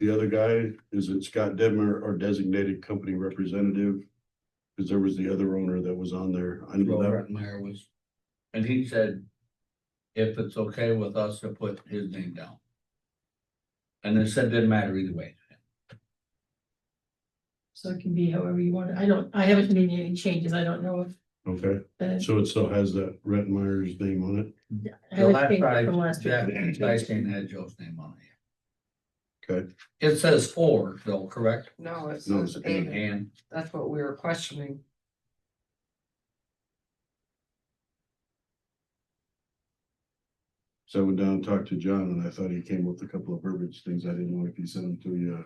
The other guy, is it Scott Dedmer, our designated company representative? Cause there was the other owner that was on there. I know that, Robert Meyer was, and he said, if it's okay with us to put his name down. And they said didn't matter either way. So it can be however you want. it. I don't, I haven't made any changes. I don't know if okay, the. so it still has that Rettenmeyer's name on it, I The haven't last changed it I- from last Yeah, year. I seen had Joe's name on it. Okay. It says or though, correct? No, it No, says it's and. And That's what we were questioning. so I went down and talked to John and I thought he came up with a couple of verbiage things I didn't know if he sent them to you.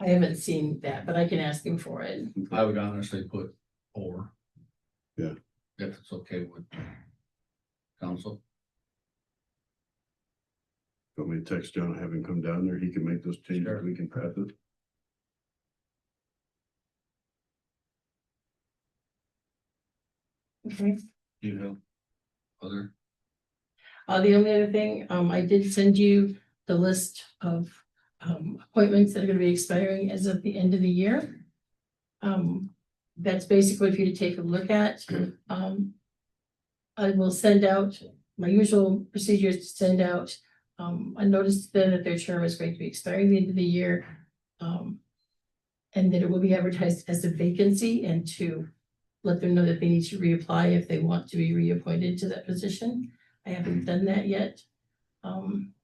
I haven't seen that, but I can ask him for it. I would honestly put or. Yeah. If it's okay with council. Got me to text John, have him come down there, he can make those changes, Sure. we can pass it. Do you have other? Uh, the only other thing, um, I did send you the list of, um, appointments that are gonna be expiring as of the end of the year. Um, that's basically for you to take a look at, um. I will send out, my usual procedure is to send out, um, a notice to them that their term is going to be expiring the end of the year. Um, and that it will be advertised as a vacancy and to let them know that they need to reapply if they want to be reappointed to that position. I haven't done that yet. Um,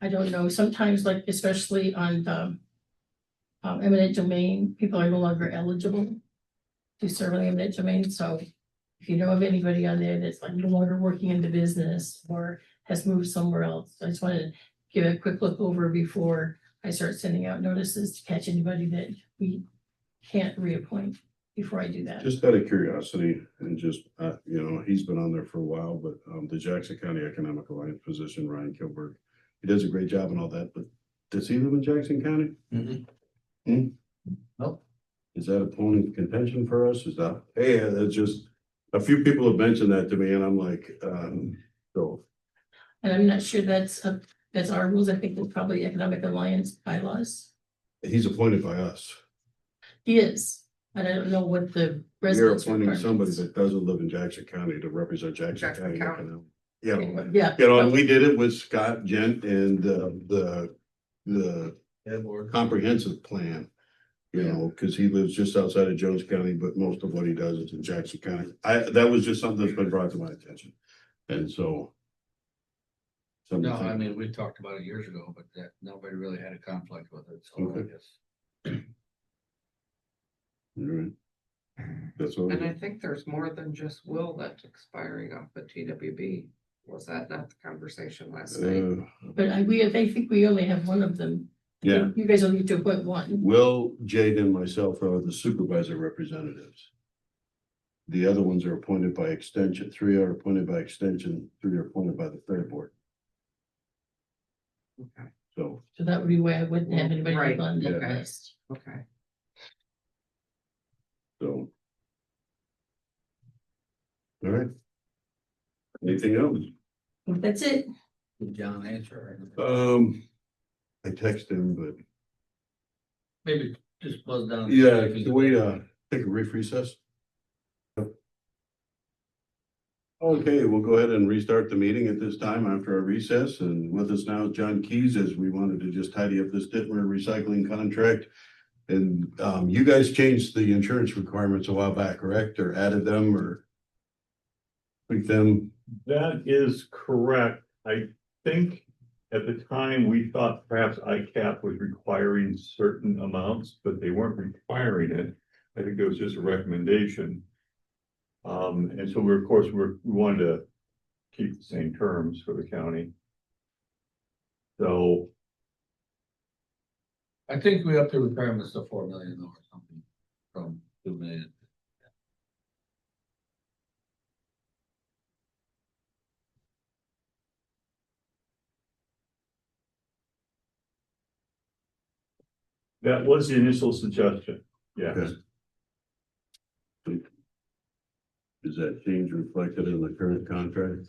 I don't know, sometimes like especially on the um, eminent domain, people are no longer eligible to serve on the eminent domain, so if you know of anybody on there that's like no longer working in the business or has moved somewhere else, I just wanted to give a quick look over before I start sending out notices to catch anybody that we can't reappoint before I do that. Just out of curiosity and just, uh, you know, he's been on there for a while, but, um, the Jackson County Economic Alliance position, Ryan Kilburg. He does a great job and all that, but does he live in Jackson County? Hmm? Nope. Is that a point of contention for us? Is that, hey, that's just, a few people have mentioned that to me and I'm like, um, so. And I'm not sure that's, uh, that's our rules, I think it's probably Economic Alliance bylaws. He's appointed by us. He is, but I don't know what the You're residents. appointing somebody requirements- that doesn't live in Jackson County to represent Jackson Jackson County. County. Economic- Yeah. but- Yeah, You know, and we did it with Scott Gent and, uh, the, the comprehensive plan. You know, because he lives just outside of Jones County, but most of what he does is in Jackson County. I, that was just something that's been brought to my attention. And so. something No, to I think- mean, we talked about it years ago, but that, nobody really had a conflict with it, so I Okay. guess. all right. That's what, And I we- think there's more than just Will that's expiring off the TWB. Was that not the conversation last night? uh, but I, we, I think we only have one of them. yeah, You guys only need to appoint one. Will, Jade and myself are the supervisor representatives. The other ones are appointed by extension, three are appointed by extension, three are appointed by the fair board, Okay, so. So that would be why I wouldn't have anybody Right, on that okay. list. okay. So. All right. Anything else? Well, That's it. Did John answer? or- Um. I texted him, but Maybe just buzz down. and see yeah, if he's- can we uh take a brief recess? Okay, we'll go ahead and restart the meeting at this time after our recess and with us now is John Keys as we wanted to just tidy up this Ditmer recycling contract. And um you guys changed the insurance requirements a while back, correct? Or added them or? Tweaked them? That is correct. I think at the time, we thought perhaps ICAP was requiring certain amounts, but they weren't requiring it. I think it was just a recommendation. Um, and so we're, of course, we're, we wanted to keep the same terms for the county. So, I think we up the requirements to four million or something from two million. That was the initial suggestion, yeah. Okay. Is that change reflected in the current contract?